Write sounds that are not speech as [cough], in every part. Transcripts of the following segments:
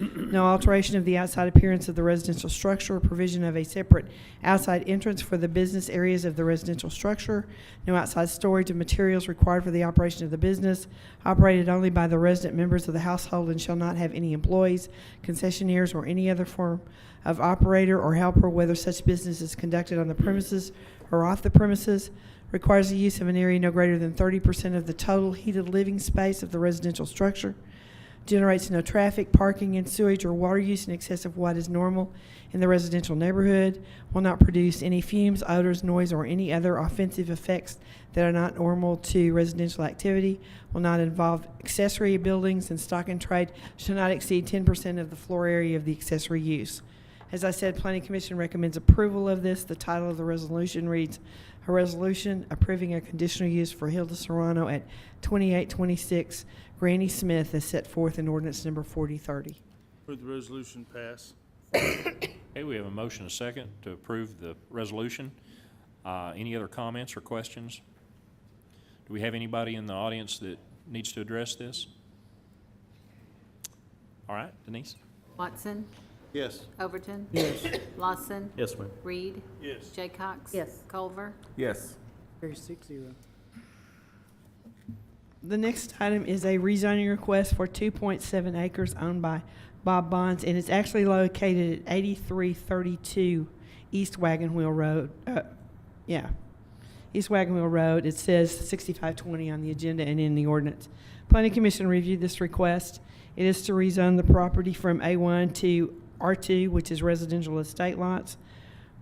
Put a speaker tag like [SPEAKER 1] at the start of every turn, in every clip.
[SPEAKER 1] No alteration of the outside appearance of the residential structure, provision of a separate outside entrance for the business areas of the residential structure, no outside storage of materials required for the operation of the business, operated only by the resident members of the household and shall not have any employees, concessionaires, or any other form of operator or helper, whether such business is conducted on the premises or off the premises, requires the use of an area no greater than thirty percent of the total heated living space of the residential structure, generates no traffic, parking, and sewage or water use in excess of what is normal in the residential neighborhood, will not produce any fumes, odors, noise, or any other offensive effects that are not normal to residential activity, will not involve accessory buildings and stock and trade, shall not exceed ten percent of the floor area of the accessory use. As I said, Planning Commission recommends approval of this. The title of the resolution reads, "A Resolution Approving a Conditional Use for Hilda Serrano at 2826 Granny Smith as set forth in ordinance number 4030."
[SPEAKER 2] Move the resolution pass.
[SPEAKER 3] Okay, we have a motion, a second, to approve the resolution. Uh, Any other comments or questions? Do we have anybody in the audience that needs to address this? All right, Denise?
[SPEAKER 4] Watson?
[SPEAKER 2] Yes.
[SPEAKER 4] Overton? Yes. Lawson?
[SPEAKER 5] Yes, ma'am.
[SPEAKER 4] Reed?
[SPEAKER 2] Yes.
[SPEAKER 4] Jaycox?
[SPEAKER 6] Yes.
[SPEAKER 4] Culver?
[SPEAKER 5] Yes.
[SPEAKER 6] Carries six zero.
[SPEAKER 1] The next item is a rezoning request for 2.7 acres owned by Bob Bonds, and it's actually located at 8332 East Wagon Wheel Road. Uh, Yeah, East Wagon Wheel Road. It says 6520 on the agenda and in the ordinance. Planning Commission reviewed this request. It is to rezone the property from A1 to R2, which is residential estate lots.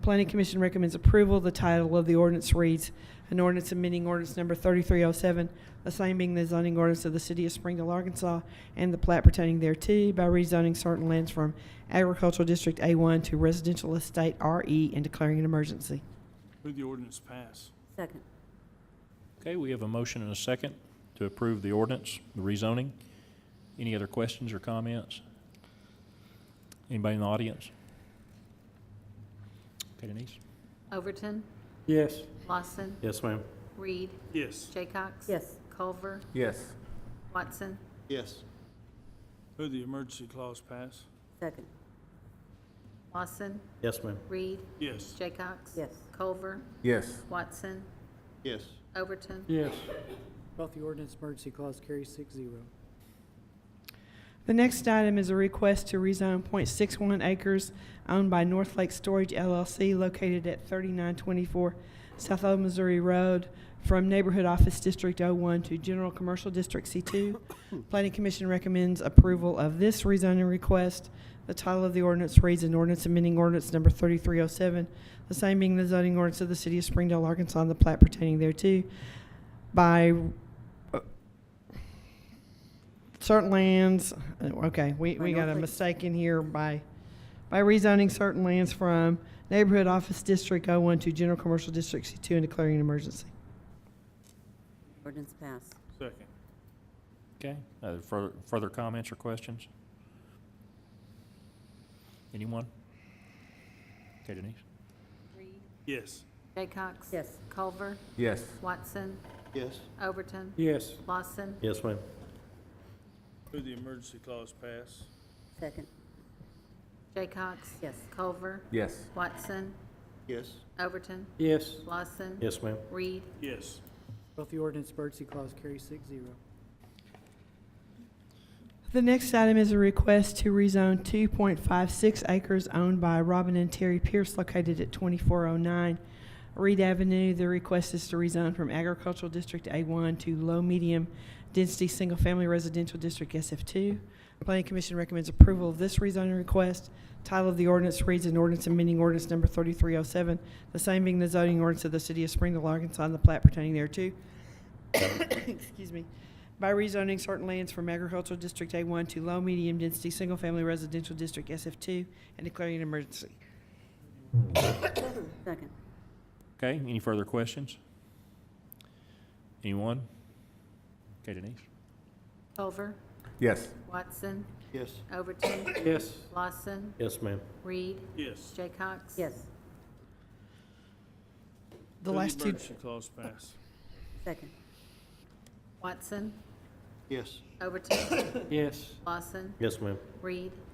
[SPEAKER 1] Planning Commission recommends approval. The title of the ordinance reads, an ordinance amending ordinance number 3307, the same being the zoning ordinance of the city of Springdale, Arkansas, and the plat pertaining thereto by rezoning certain lands from agricultural district A1 to residential estate RE and declaring an emergency.
[SPEAKER 2] Move the ordinance pass.
[SPEAKER 6] Second.
[SPEAKER 3] Okay, we have a motion and a second to approve the ordinance, the rezoning. Any other questions or comments? Anybody in the audience? Okay, Denise?
[SPEAKER 4] Overton?
[SPEAKER 5] Yes.
[SPEAKER 4] Lawson?
[SPEAKER 5] Yes, ma'am.
[SPEAKER 4] Reed?
[SPEAKER 2] Yes.
[SPEAKER 4] Jaycox?
[SPEAKER 6] Yes.
[SPEAKER 4] Culver?
[SPEAKER 5] Yes.
[SPEAKER 4] Watson?
[SPEAKER 5] Yes.
[SPEAKER 2] Move the emergency clause pass.
[SPEAKER 6] Second.
[SPEAKER 4] Lawson?
[SPEAKER 5] Yes, ma'am.
[SPEAKER 4] Reed?
[SPEAKER 2] Yes.
[SPEAKER 4] Jaycox?
[SPEAKER 6] Yes.
[SPEAKER 4] Culver?
[SPEAKER 5] Yes.
[SPEAKER 4] Watson?
[SPEAKER 5] Yes.
[SPEAKER 4] Overton?
[SPEAKER 5] Yes.
[SPEAKER 6] Both the ordinance emergency clause carries six zero.
[SPEAKER 1] The next item is a request to rezone .61 acres owned by North Lake Storage LLC located at 3924 South Old Missouri Road from Neighborhood Office District 01 to General Commercial District C2. Planning Commission recommends approval of this rezoning request. The title of the ordinance reads an ordinance amending ordinance number 3307, the same being the zoning ordinance of the city of Springdale, Arkansas, and the plat pertaining thereto by uh, certain lands, uh, okay, we,
[SPEAKER 6] By
[SPEAKER 1] we got a
[SPEAKER 6] Northlake.
[SPEAKER 1] mistake in here by, by rezoning certain lands from neighborhood office district O one to general commercial district C two and declaring an emergency.
[SPEAKER 6] Ordinance passed.
[SPEAKER 2] Second.
[SPEAKER 3] Okay, uh, further, further comments or questions? Anyone? Okay, Denise?
[SPEAKER 4] Reed?
[SPEAKER 2] Yes.
[SPEAKER 4] Jaycox?
[SPEAKER 6] Yes.
[SPEAKER 4] Culver?
[SPEAKER 5] Yes.
[SPEAKER 4] Watson?
[SPEAKER 5] Yes.
[SPEAKER 4] Overton?
[SPEAKER 5] Yes.
[SPEAKER 4] Lawson?
[SPEAKER 5] Yes, ma'am.
[SPEAKER 2] Move the emergency clause pass.
[SPEAKER 6] Second.
[SPEAKER 4] Jaycox?
[SPEAKER 6] Yes.
[SPEAKER 4] Culver?
[SPEAKER 5] Yes.
[SPEAKER 4] Watson?
[SPEAKER 5] Yes.
[SPEAKER 4] Overton?
[SPEAKER 5] Yes.
[SPEAKER 4] Lawson?
[SPEAKER 5] Yes, ma'am.
[SPEAKER 4] Reed?
[SPEAKER 2] Yes.
[SPEAKER 6] Both the ordinance emergency clause carries six zero.
[SPEAKER 1] The next item is a request to rezone two point five six acres owned by Robin and Terry Pierce located at twenty-four oh nine Reed Avenue. The request is to rezone from agricultural district A one to low medium density single-family residential district SF two. Planning Commission recommends approval of this rezoning request. Title of the ordinance reads an ordinance amending ordinance number thirty-three oh seven, the same being the zoning ordinance of the city of Springdale, Arkansas, and the plat pertaining thereto. [coughs] Excuse me by rezoning certain lands from agricultural district A1 to low medium density single-family residential district SF2 and declaring an emergency.
[SPEAKER 6] Second.
[SPEAKER 3] Okay, any further questions? Anyone? Okay, Denise?
[SPEAKER 4] Culver?
[SPEAKER 5] Yes.
[SPEAKER 4] Watson?
[SPEAKER 5] Yes.
[SPEAKER 4] Overton?
[SPEAKER 5] Yes.
[SPEAKER 4] Lawson?
[SPEAKER 5] Yes, ma'am.
[SPEAKER 4] Reed?
[SPEAKER 2] Yes.
[SPEAKER 4] Jaycox?
[SPEAKER 6] Yes.
[SPEAKER 1] The
[SPEAKER 2] Move
[SPEAKER 1] last two,
[SPEAKER 2] Emergency clause pass.
[SPEAKER 6] Second.
[SPEAKER 4] Watson?
[SPEAKER 5] Yes.
[SPEAKER 4] Overton?
[SPEAKER 5] Yes.
[SPEAKER 4] Lawson?
[SPEAKER 5] Yes, ma'am.
[SPEAKER 4] Reed?